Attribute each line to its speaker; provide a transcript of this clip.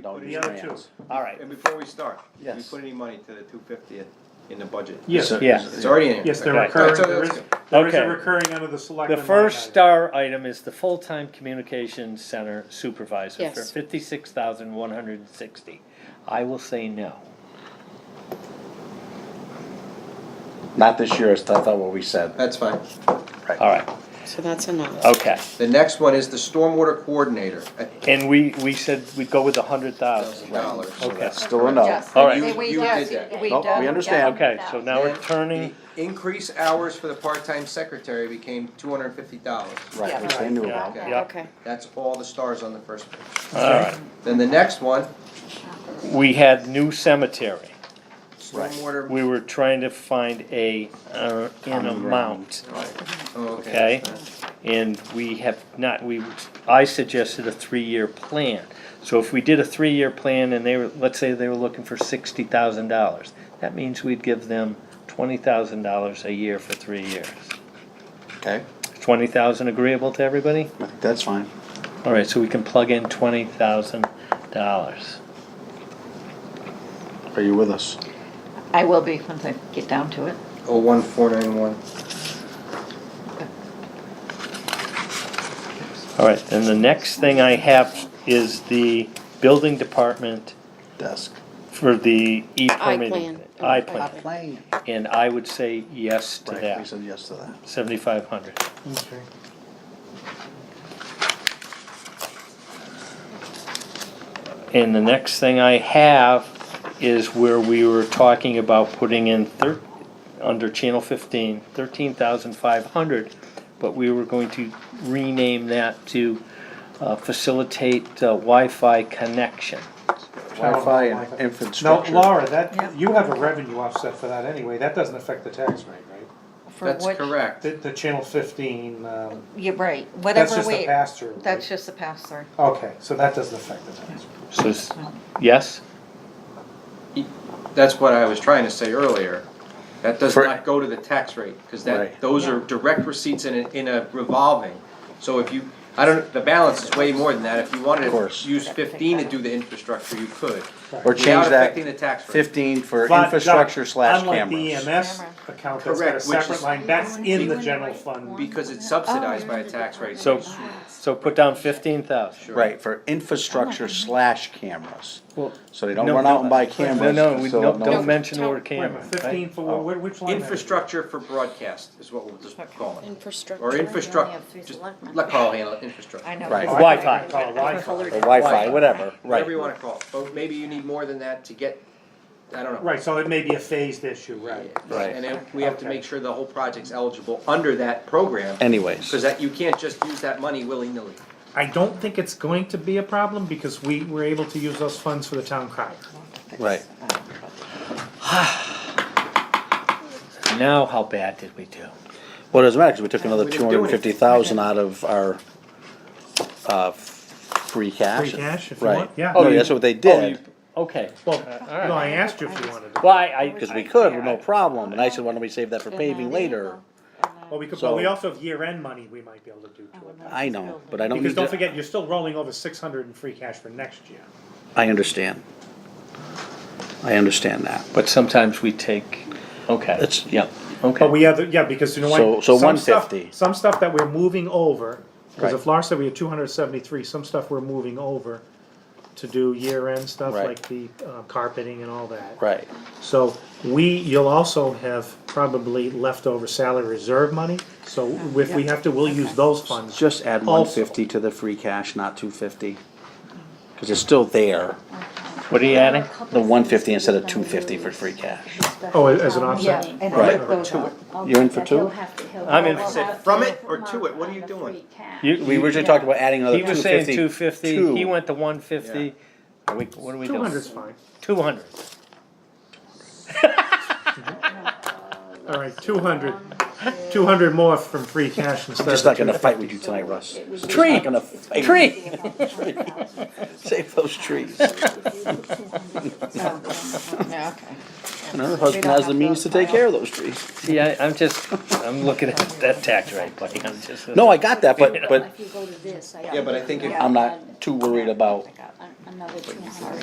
Speaker 1: Don't
Speaker 2: The
Speaker 1: use
Speaker 2: other
Speaker 1: my
Speaker 2: two.
Speaker 1: ass. All right,
Speaker 3: And before we start, did we
Speaker 1: Yes.
Speaker 3: put any money to the two fiftieth in the budget?
Speaker 2: Yes,
Speaker 1: So-
Speaker 4: Yeah.
Speaker 3: It's already in. here.
Speaker 2: yes, they're
Speaker 4: Okay.
Speaker 2: recurring,
Speaker 3: That's-
Speaker 2: there is,
Speaker 3: that's-
Speaker 2: there is a
Speaker 4: Okay.
Speaker 2: recurring under the select.
Speaker 4: The first star item is the full-time communications center supervisor for
Speaker 5: Yes.
Speaker 4: fifty-six thousand one hundred and sixty. I will say no.
Speaker 1: not this year, it's not what we said.
Speaker 3: That's fine.
Speaker 4: All right,
Speaker 5: So that's a no.
Speaker 4: okay.
Speaker 3: The next one is the stormwater coordinator, at
Speaker 4: And we, we said we'd go with a hundred
Speaker 3: thousand
Speaker 4: thousand.
Speaker 3: dollars.
Speaker 1: So
Speaker 4: Okay.
Speaker 1: that's still a no.
Speaker 6: Yes.
Speaker 4: All right.
Speaker 3: You-
Speaker 6: Hey, we
Speaker 3: you
Speaker 6: done-
Speaker 3: did that.
Speaker 6: we
Speaker 1: Nope,
Speaker 6: done-
Speaker 1: we understand.
Speaker 4: Okay, so now we're turning,
Speaker 3: Increase hours for the part-time secretary became two hundred and fifty dollars.
Speaker 1: Right,
Speaker 6: Yeah.
Speaker 1: which they knew about.
Speaker 6: Okay.
Speaker 4: yeah,
Speaker 5: Okay,
Speaker 3: That's all the stars on the first page.
Speaker 4: all right.
Speaker 3: Then the next one,
Speaker 4: We had new cemetery.
Speaker 3: stormwater.
Speaker 4: We were trying to find a, uh, an
Speaker 1: Common ground.
Speaker 4: amount.
Speaker 3: Right. Oh,
Speaker 4: Okay.
Speaker 3: okay.
Speaker 4: And we have not, we, I suggested a three-year plan. So if we did a three-year plan and they were, let's say they were looking for sixty thousand dollars, that means we'd give them twenty thousand dollars a year for three years.
Speaker 1: Okay,
Speaker 4: Twenty thousand agreeable to everybody?
Speaker 1: I think that's fine.
Speaker 4: All right, so we can plug in twenty thousand dollars.
Speaker 1: Are you with us?
Speaker 6: I will be once I get down to it.
Speaker 3: Oh, one, four, nine, one.
Speaker 4: All right, then the next thing I have is the building department
Speaker 1: Desk.
Speaker 4: for the
Speaker 5: plan.
Speaker 4: e-permitting. I
Speaker 5: Not
Speaker 4: plan,
Speaker 1: playing.
Speaker 4: and I would say yes to
Speaker 1: Right, we
Speaker 4: that,
Speaker 1: said yes to that.
Speaker 4: seventy-five hundred. And the next thing I have is where we were talking about putting in thir- under channel fifteen, thirteen thousand five hundred. But we were going to rename that to, uh, facilitate uh, Wi-Fi connection.
Speaker 1: Wi-Fi and
Speaker 2: No,
Speaker 1: infrastructure.
Speaker 2: Laura, that,
Speaker 6: Yeah.
Speaker 2: you have a revenue offset for that anyway, that doesn't affect the tax rate, right?
Speaker 6: For
Speaker 3: That's
Speaker 6: what-
Speaker 3: correct.
Speaker 2: The, the channel fifteen, um,
Speaker 6: You're right,
Speaker 2: that's
Speaker 6: whatever
Speaker 2: just a
Speaker 6: we,
Speaker 2: pass through.
Speaker 6: that's just a pass through.
Speaker 2: Okay, so that doesn't affect the tax. rate.
Speaker 4: So, s- yes?
Speaker 3: That's what I was trying to say earlier. That does
Speaker 1: For-
Speaker 3: not go to the tax rate, because that,
Speaker 1: Right.
Speaker 3: those are direct receipts in a, in a revolving. So if you, I don't, the balance is way more than that. If you wanted
Speaker 1: Of course.
Speaker 3: to use fifteen to do the infrastructure, you could.
Speaker 1: Or
Speaker 3: Without
Speaker 1: change
Speaker 3: affecting
Speaker 1: that
Speaker 3: the tax rate.
Speaker 1: fifteen for
Speaker 2: But,
Speaker 1: infrastructure
Speaker 2: Doc,
Speaker 1: slash
Speaker 2: Unlike
Speaker 1: cameras.
Speaker 2: the EMS account, that's got a
Speaker 3: Correct, which
Speaker 2: separate
Speaker 3: is-
Speaker 2: line, that's in the general fund.
Speaker 3: Because it's subsidized by a tax rate.
Speaker 4: So, so put down fifteen thousand.
Speaker 3: Sure.
Speaker 1: Right, for infrastructure slash cameras.
Speaker 4: Well,
Speaker 1: So they don't
Speaker 4: No,
Speaker 1: run
Speaker 4: no,
Speaker 1: out and buy
Speaker 4: no,
Speaker 1: cameras.
Speaker 4: no, we
Speaker 1: so
Speaker 4: don't,
Speaker 1: no-
Speaker 4: don't mention the
Speaker 5: Tell-
Speaker 4: word
Speaker 2: Wait a
Speaker 4: camera.
Speaker 2: minute,
Speaker 4: right?
Speaker 2: Fifteen for, wh- which line? item?
Speaker 3: Oh. Infrastructure for broadcast is what we'll just call it.
Speaker 5: infrastructure.
Speaker 3: Or
Speaker 6: We only
Speaker 3: infrastructure,
Speaker 6: have three
Speaker 3: just
Speaker 6: selectmen.
Speaker 3: let Carl handle it, infrastructure.
Speaker 6: I know.
Speaker 1: Right.
Speaker 2: Oh, I think
Speaker 4: Wi-Fi.
Speaker 2: I call it Wi-Fi.
Speaker 1: Or Wi-Fi, whatever,
Speaker 3: Whatever
Speaker 1: right.
Speaker 3: you wanna call it. But maybe you need more than that to get, I don't know.
Speaker 2: Right, so it may be a phased issue, right?
Speaker 1: Right.
Speaker 3: And then we have to
Speaker 2: Okay.
Speaker 3: make sure the whole project's eligible under that program.
Speaker 1: Anyways.
Speaker 3: Cause that, you can't just use that money willy-nilly.
Speaker 2: I don't think it's going to be a problem because we were able to use those funds for the town crier.
Speaker 1: Right.
Speaker 4: Now, how bad did we do?
Speaker 1: Well, it doesn't matter, because we took another
Speaker 3: We
Speaker 1: two
Speaker 3: didn't do
Speaker 1: hundred and
Speaker 3: anything.
Speaker 1: fifty thousand out of our, uh, free cash.
Speaker 2: Free cash, if you want,
Speaker 1: Right.
Speaker 2: yeah.
Speaker 1: No,
Speaker 2: Oh, you-
Speaker 1: that's what they
Speaker 4: Oh, you-
Speaker 1: did,
Speaker 4: Okay,
Speaker 2: Well,
Speaker 4: right.
Speaker 2: no, I asked you if you wanted to.
Speaker 4: well, I, I.
Speaker 1: because we could, with no problem, and I said, why don't we save that for paving later?
Speaker 2: Well, we could,
Speaker 1: So-
Speaker 2: but we also have year-end money we might be able to do to it.
Speaker 1: I know, but I don't
Speaker 2: Because
Speaker 1: need
Speaker 2: don't
Speaker 1: to,
Speaker 2: forget, you're still rolling over six hundred in free cash for next year.
Speaker 1: I understand. I understand that,
Speaker 4: But sometimes we take, okay,
Speaker 1: it's, yeah,
Speaker 4: okay.
Speaker 2: But we have, the- yeah, because you know
Speaker 1: So-
Speaker 2: what?
Speaker 1: so
Speaker 2: Some stuff-
Speaker 1: 150.
Speaker 2: Some stuff that we're moving over, because
Speaker 1: Right.
Speaker 2: if Lars said we had two hundred seventy-three, some stuff we're moving over to do year-end stuff,
Speaker 1: Right.
Speaker 2: like the uh, carpeting and all that.
Speaker 1: right,
Speaker 2: So we, you'll also have probably leftover salary reserve money, so if we have to, we'll use those funds.
Speaker 1: just add
Speaker 2: Also-
Speaker 1: one fifty to the free cash, not two fifty. Because it's still there,
Speaker 4: What are you adding?
Speaker 1: the one fifty instead of two fifty for free cash.
Speaker 2: Oh, as an offset?
Speaker 7: Yeah, and
Speaker 1: Right.
Speaker 7: take those out.
Speaker 1: You're in for two?
Speaker 7: He'll have to- he'll-
Speaker 4: I'm in
Speaker 7: he'll
Speaker 4: for
Speaker 3: six.
Speaker 7: have
Speaker 3: From
Speaker 7: to
Speaker 3: it
Speaker 7: put
Speaker 3: or
Speaker 7: them
Speaker 3: to
Speaker 7: up
Speaker 3: it? What are
Speaker 7: on
Speaker 3: you
Speaker 7: the
Speaker 3: doing?
Speaker 7: free cash.
Speaker 4: You-
Speaker 1: We originally talked about adding another
Speaker 4: He
Speaker 1: two fifty.
Speaker 4: was saying two fifty, he went to one fifty. Are we, what are we
Speaker 2: Two
Speaker 4: doing?
Speaker 2: hundred's fine.
Speaker 4: Two hundred.
Speaker 2: All right, two hundred. Two hundred more from free cash instead of.
Speaker 1: Just not gonna fight with you tonight, Russ. Just not
Speaker 4: Tree.
Speaker 1: gonna fight.
Speaker 4: Tree,
Speaker 1: Save those trees.
Speaker 6: Yeah, okay.
Speaker 1: And her husband has the means to take care of those trees.
Speaker 4: See, I, I'm just, I'm looking at that tax rate, buddy, I'm just.
Speaker 1: No, I got that, but, but
Speaker 7: If you go to this, I.
Speaker 3: Yeah, but I think if-
Speaker 1: I'm not too worried about
Speaker 7: I got an- Another two hundred.